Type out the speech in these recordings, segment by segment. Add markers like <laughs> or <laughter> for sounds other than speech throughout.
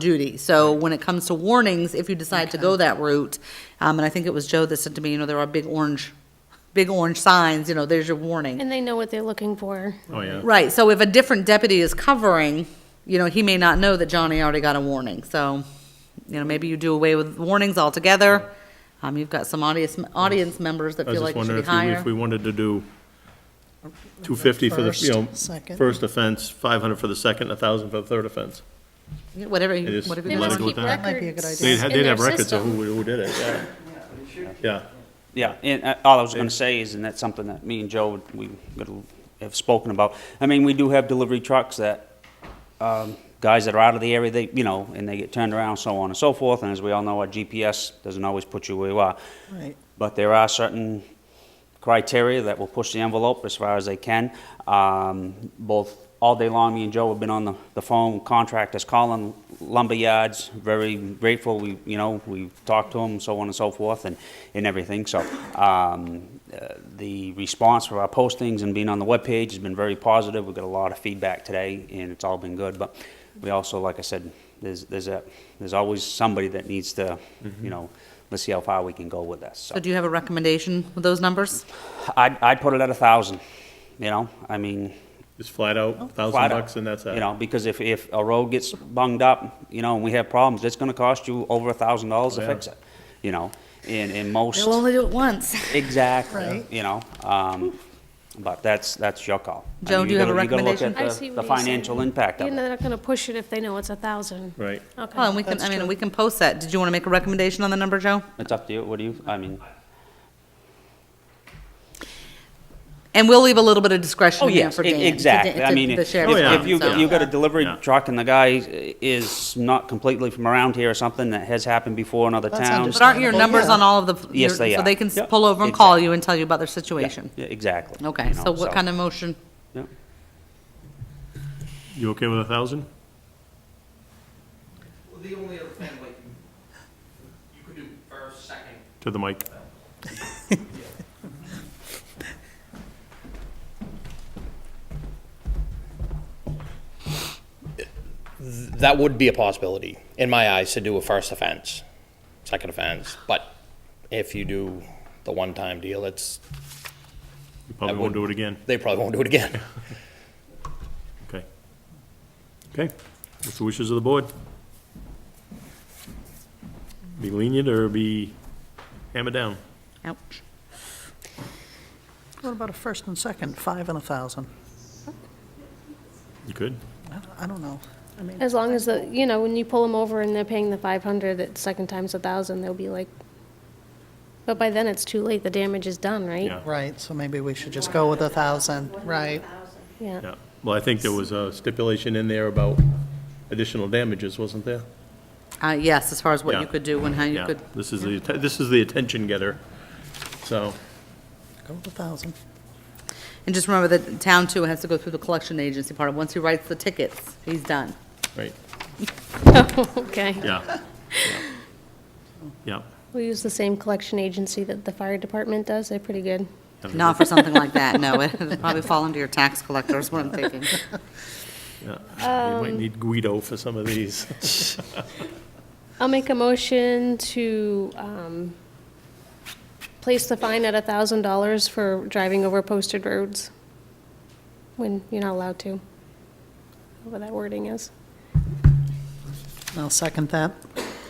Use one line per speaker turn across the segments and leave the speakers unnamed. Judy. So when it comes to warnings, if you decide to go that route, um, and I think it was Joe that said to me, you know, there are big orange, big orange signs, you know, there's your warning.
And they know what they're looking for.
Oh, yeah.
Right, so if a different deputy is covering, you know, he may not know that Johnny already got a warning, so, you know, maybe you do away with warnings altogether. Um, you've got some audience, audience members that
I was
feel
just
like it should be
wondering if we,
higher.
if we wanted to do 250 for the, you know,
First, second.
first offense, 500 for the second, 1,000 for the third offense.
Yeah, Whatever,
It
you-
is-
whatever
They
you
Let it
must
go
want.
with
keep
that.
Might be a good
records
They'd,
idea.
in
ha-
their
they'd have records of
system.
who, who did it, yeah. Yeah,
Yeah, and uh, all I was going to say is, and that's something that me and Joe, we would have spoken about. I mean, we do have delivery trucks that, um, guys that are out of the area, they, you know, and they get turned around, so on and so forth. And as we all know, our GPS doesn't always put you where you are.
Right.
But there are certain criteria that will push the envelope as far as they can. Um, both, all day long, me and Joe have been on the, the phone, contractors calling lumber yards, very grateful, we, you know, we've talked to them, so on and so forth, and, and everything, so, um, uh, the response for our postings and being on the webpage has been very positive, we've got a lot of feedback today, and it's all been good, but we also, like I said, there's, there's a, there's always somebody that needs to, you know, let's see how far we can go with this, so.
So do you have a recommendation with those numbers?
I'd, I'd put it at a thousand, you know, I mean.
just flat out, 1,000
flat out,
bucks and that's it.
You know, because if, if a road gets bunged up, you know, and we have problems, it's gonna cost you over a thousand dollars to
yeah.
fix it, you know, in, in most,
They'll only do it once.
exactly,
Right.
you know, um, but that's, that's your call. I
Joe,
mean,
do you
you're
have a
gonna- you're gonna look
recommendation?
at
I
the-
see what
The
he's saying.
financial impact
You're
of it.
not gonna push it if they know it's a thousand.
Right.
Well, Oh, and
Okay.
we can, I
That's
mean,
true.
we can post that. Did you want to make a recommendation on the number, Joe?
It's up to you, what do you, I mean,
And we'll leave a little bit of discretion
oh,
in there
yes,
for
e-
Dan. to-
exactly,
to-
I
to
mean,
The
if
sheriff's
yeah.
if
department,
you,
so-
you got a delivery
Yeah.
truck and the guy is not completely from around here or something, that has happened before in other
That's
towns.
But aren't your
Understandable,
numbers
yeah.
on all of the?
Yes,
your-
they
So
are.
they can s-
Yep.
pull over and call
Exactly.
you and tell you about their
Yeah,
situation?
yeah, Exactly.
Okay, so what kind of motion?
of?
You okay with 1,000?
Well, the only other thing, like, you could do first, second,
To the mic.
that would be a possibility, in my eyes, to do a first offense, second offense, but if you do the one-time deal, it's,
You probably won't do it again.
they probably won't do it again. <laughs>
Okay. Okay, what's the wishes of the board? Be lenient or be hammer down?
Ouch.
What about a first and second, five and a thousand?
You could.
I don't- I don't know. I mean,
As long as the, you know, when you pull them over and they're paying the five hundred, that second time's a thousand, they'll be like, but by then it's too late, the damage is done, right?
Yeah.
right, so maybe we should just go with a thousand, right?
Yeah.
Yeah, well, I think there was a stipulation in there about additional damages, wasn't there?
Uh, yes, as far as what
Yeah.
you could do and how you
Yeah,
could,
this is the, atten- this is the attention getter, so,
Go with a thousand.
and just remember that town too has to go through the collection agency part. Once he writes the tickets, he's done.
right,
<laughs> Okay.
yeah. yeah. Yeah,
We use the same collection agency that the fire department does. They're pretty good.
Not for something like that, no. <laughs> It'll probably fall under your tax collector is what I'm thinking.
yeah,
Um,
we might need Guido for some of these.
I'll make a motion to um, place the fine at $1,000 for driving over posted roads when you're not allowed to, whatever that wording is.
I'll second that.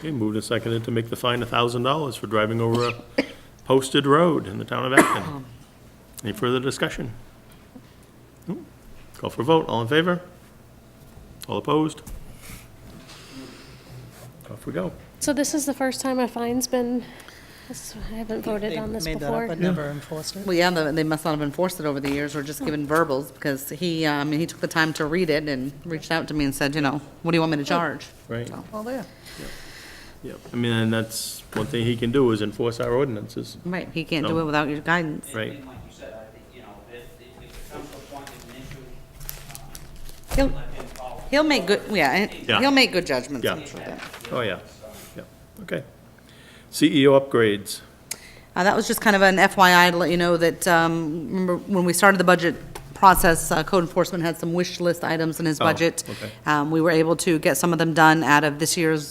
Okay, moved and seconded to make the fine a thousand dollars for driving over a posted road in the town
<coughs>
of Acton. Any further discussion? No? Call for a vote, all in favor? All opposed? Off we go.
So this is the first time a fine's been, this- I haven't voted on this
They Made that up,
before.
but never enforced it.
Well, yeah, the- they must not have enforced it over the years or just given verbals because he, um, he took the time to read it and reached out to me and said, you know, what do you want me to charge?
Oh, Right,
Well, there.
yep. I mean, and that's, one thing he can do is enforce our ordinances,
Right, he can't do it without your guidance.
right?
And like you said, I think, you know, if, if it comes to a point it's an issue,
He'll,
let them follow.
he'll make good, yeah, and
Yeah.
he'll make good judgments. I'm
Yeah.
sure of that.
Oh, yeah, yeah, okay. CEO upgrades,
Uh, that was just kind of an FYI to let you know that, um, remember when we started the budget process, uh, code enforcement had some wish list items in his
Oh,
budget.
okay.
Um, We were able to get some of them done out of this year's